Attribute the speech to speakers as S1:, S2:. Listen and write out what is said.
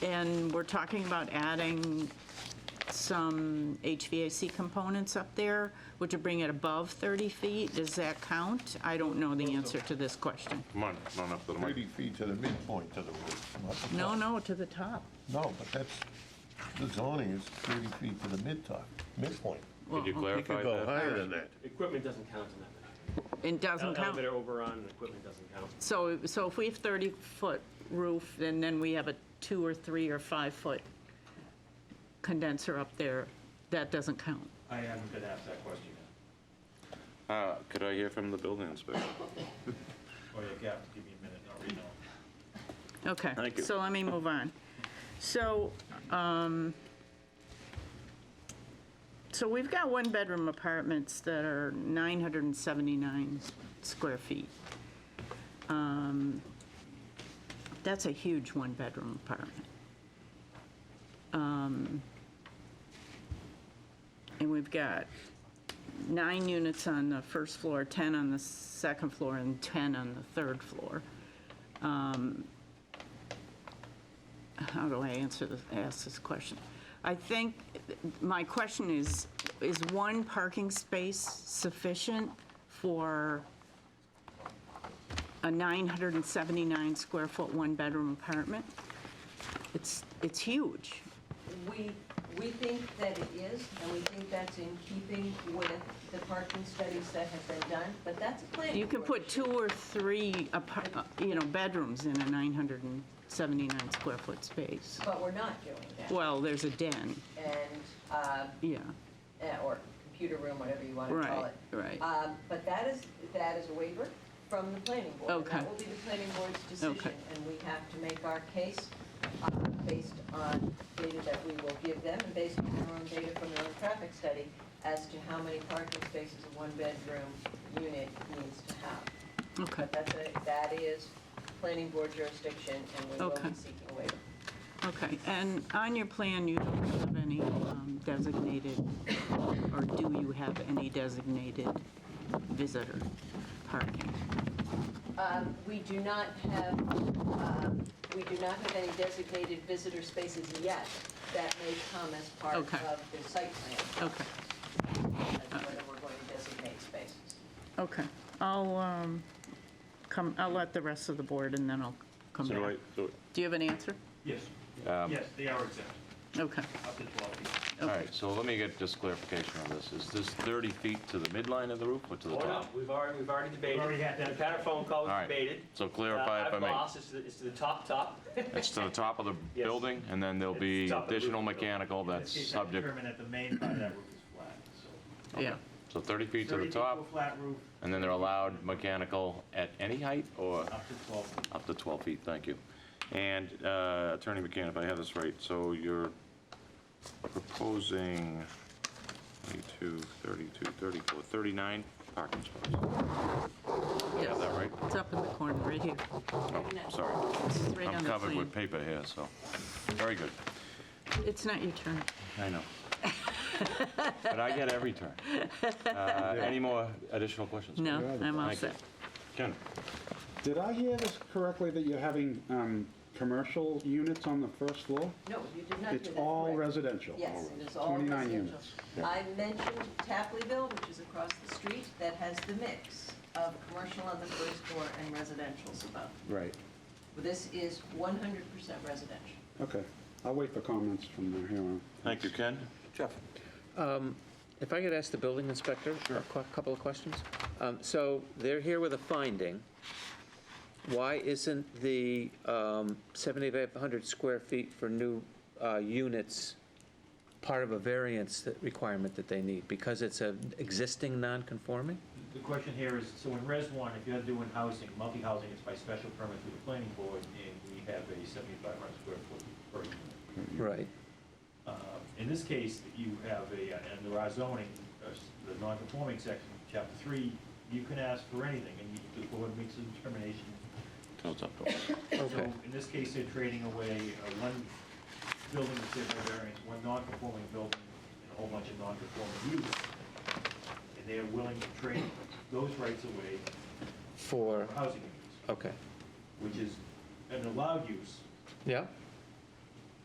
S1: And we're talking about adding some HVAC components up there, which would bring it above 30 feet. Does that count? I don't know the answer to this question.
S2: Come on, run up to the mic.
S3: 30 feet to the midpoint to the roof. not the
S1: No,
S3: top.
S1: no, to the top.
S3: No, but that's, the zoning is 30 feet to the mid-top, midpoint.
S2: Could you
S3: You
S2: clarify
S3: could go
S2: that?
S3: higher than that.
S4: Equipment doesn't count in that.
S1: It
S4: Ele-
S1: doesn't count.
S4: Elevator overrun, and equipment doesn't count.
S1: So, so if we have 30-foot roof, and then we have a two or three or five-foot condenser up there, that doesn't count.
S4: I haven't been asked that question
S2: Uh, Could I hear from the building inspector?
S5: Oh, yeah, Gav, give me a minute, I'll read them.
S1: Okay.
S2: Thank you.
S1: So let me move on. So, um, so we've got one-bedroom apartments that are 979 square feet. Um, That's a huge one-bedroom apartment. Um, And we've got nine units on the first floor, 10 on the second floor, and 10 on the third floor. how do I answer this, ask this question? I think, my question is, is one parking space sufficient for a 979 square foot, one-bedroom apartment? It's, it's huge.
S6: We, we think that it is, and we think that's in keeping with the parking studies that have been done, but that's a planning
S1: You can
S6: board
S1: put
S6: issue.
S1: two or three, apar- uh, you know, bedrooms in a 979 square foot space.
S6: But we're not doing that.
S1: Well, there's a den,
S6: And, uh,
S1: yeah,
S6: eh, or computer room, whatever you want to call
S1: right,
S6: it.
S1: right.
S6: Um, But that is, that is a waiver from the planning board. and
S1: Okay.
S6: That will be the planning board's decision,
S1: Okay.
S6: and we have to make our case uh, based on data that we will give them, and based on their own data from their own traffic study, as to how many parking spaces a one-bedroom unit needs to have.
S1: Okay,
S6: But that's a, that is planning board jurisdiction, and we will
S1: Okay.
S6: be seeking a waiver.
S1: okay. And on your plan, you don't have any um, designated, or do you have any designated visitor parking?
S6: Um, We do not have, um, we do not have any designated visitor spaces yet that may come as part of
S1: Okay.
S6: the site plan,
S1: Okay,
S6: as whether we're going to designate spaces.
S1: okay. I'll um, come, I'll let the rest of the board, and then I'll come
S2: So do
S1: back.
S2: I, so-
S1: Do you have an answer?
S5: Yes,
S2: Um,
S5: yes, they are exempt,
S1: Okay,
S5: up to 12 feet.
S2: all right, so let me get just clarification on this. Is this 30 feet to the midline of the roof or to the top?
S4: We've already, we've already debated.
S5: We've already had that.
S4: The pattern phone call
S2: All
S4: was
S2: right,
S4: debated. Uh,
S2: so clarify if I
S4: have
S2: may.
S4: lost, it's to the- it's to the top, top.
S2: It's to the top of the
S4: Yes.
S2: building, and then there'll
S4: It's
S2: be
S4: top of the roof.
S2: additional mechanical that's subject,
S5: Determine that the main part of that roof is flat, so.
S1: yeah.
S2: so 30 feet to
S5: 30
S2: the
S5: feet
S2: top,
S5: a flat roof,
S2: and then they're allowed mechanical at any height or
S5: up to 12 feet.
S2: up to 12 feet, thank you. And uh, Attorney McCann, if I have this right, so you're proposing 22, 32, 34, 39 parking spots. I
S1: Yes.
S2: have that right?
S1: It's up in the corner, right here.
S2: Oh, sorry.
S1: It's right on
S2: I'm
S1: the
S2: covered with
S1: plan.
S2: paper here, so, very good.
S1: It's not your turn.
S2: I know. But I get every turn. Uh, Any more additional questions?
S1: No, I'm all
S2: Thank you.
S1: set.
S2: Ken?
S7: Did I hear this correctly, that you're having um, commercial units on the first floor?
S6: No, you did not do that.
S7: It's all
S6: correct.
S7: residential?
S6: Yes, it is all
S7: 29
S6: residential.
S7: units.
S6: I mentioned Tapleyville, which is across the street, that has the mix of commercial on the first floor and residential's above.
S7: Right,
S6: This is 100% residential.
S7: okay. I'll wait for comments from here on.
S2: Thank you, Ken. Jeff?
S8: If I could ask the building inspector a cou- couple of questions? Um, So they're here with a finding. Why isn't the um, 7,500 square feet for new uh, units part of a variance that- requirement that they need? Because it's an existing non-conforming?
S5: The question here is, so in Res 1, if you're doing housing, multi-housing, it's by special permit through the planning board, and we have a 7,500 square foot per unit.
S8: Right.
S5: Uh, In this case, you have a, and there are zoning, uh, the non-conforming section, chapter three, you can ask for anything, and you- the board makes a determination.
S2: Toes up, toes up.
S8: Okay.
S5: So in this case, they're trading away uh, one building that's in their variance, one non-conforming building, and a whole bunch of non-conforming uses. And they are willing to trade those rights away
S8: For,
S5: for housing units,
S8: okay.
S5: which is an allowed use,
S8: Yeah?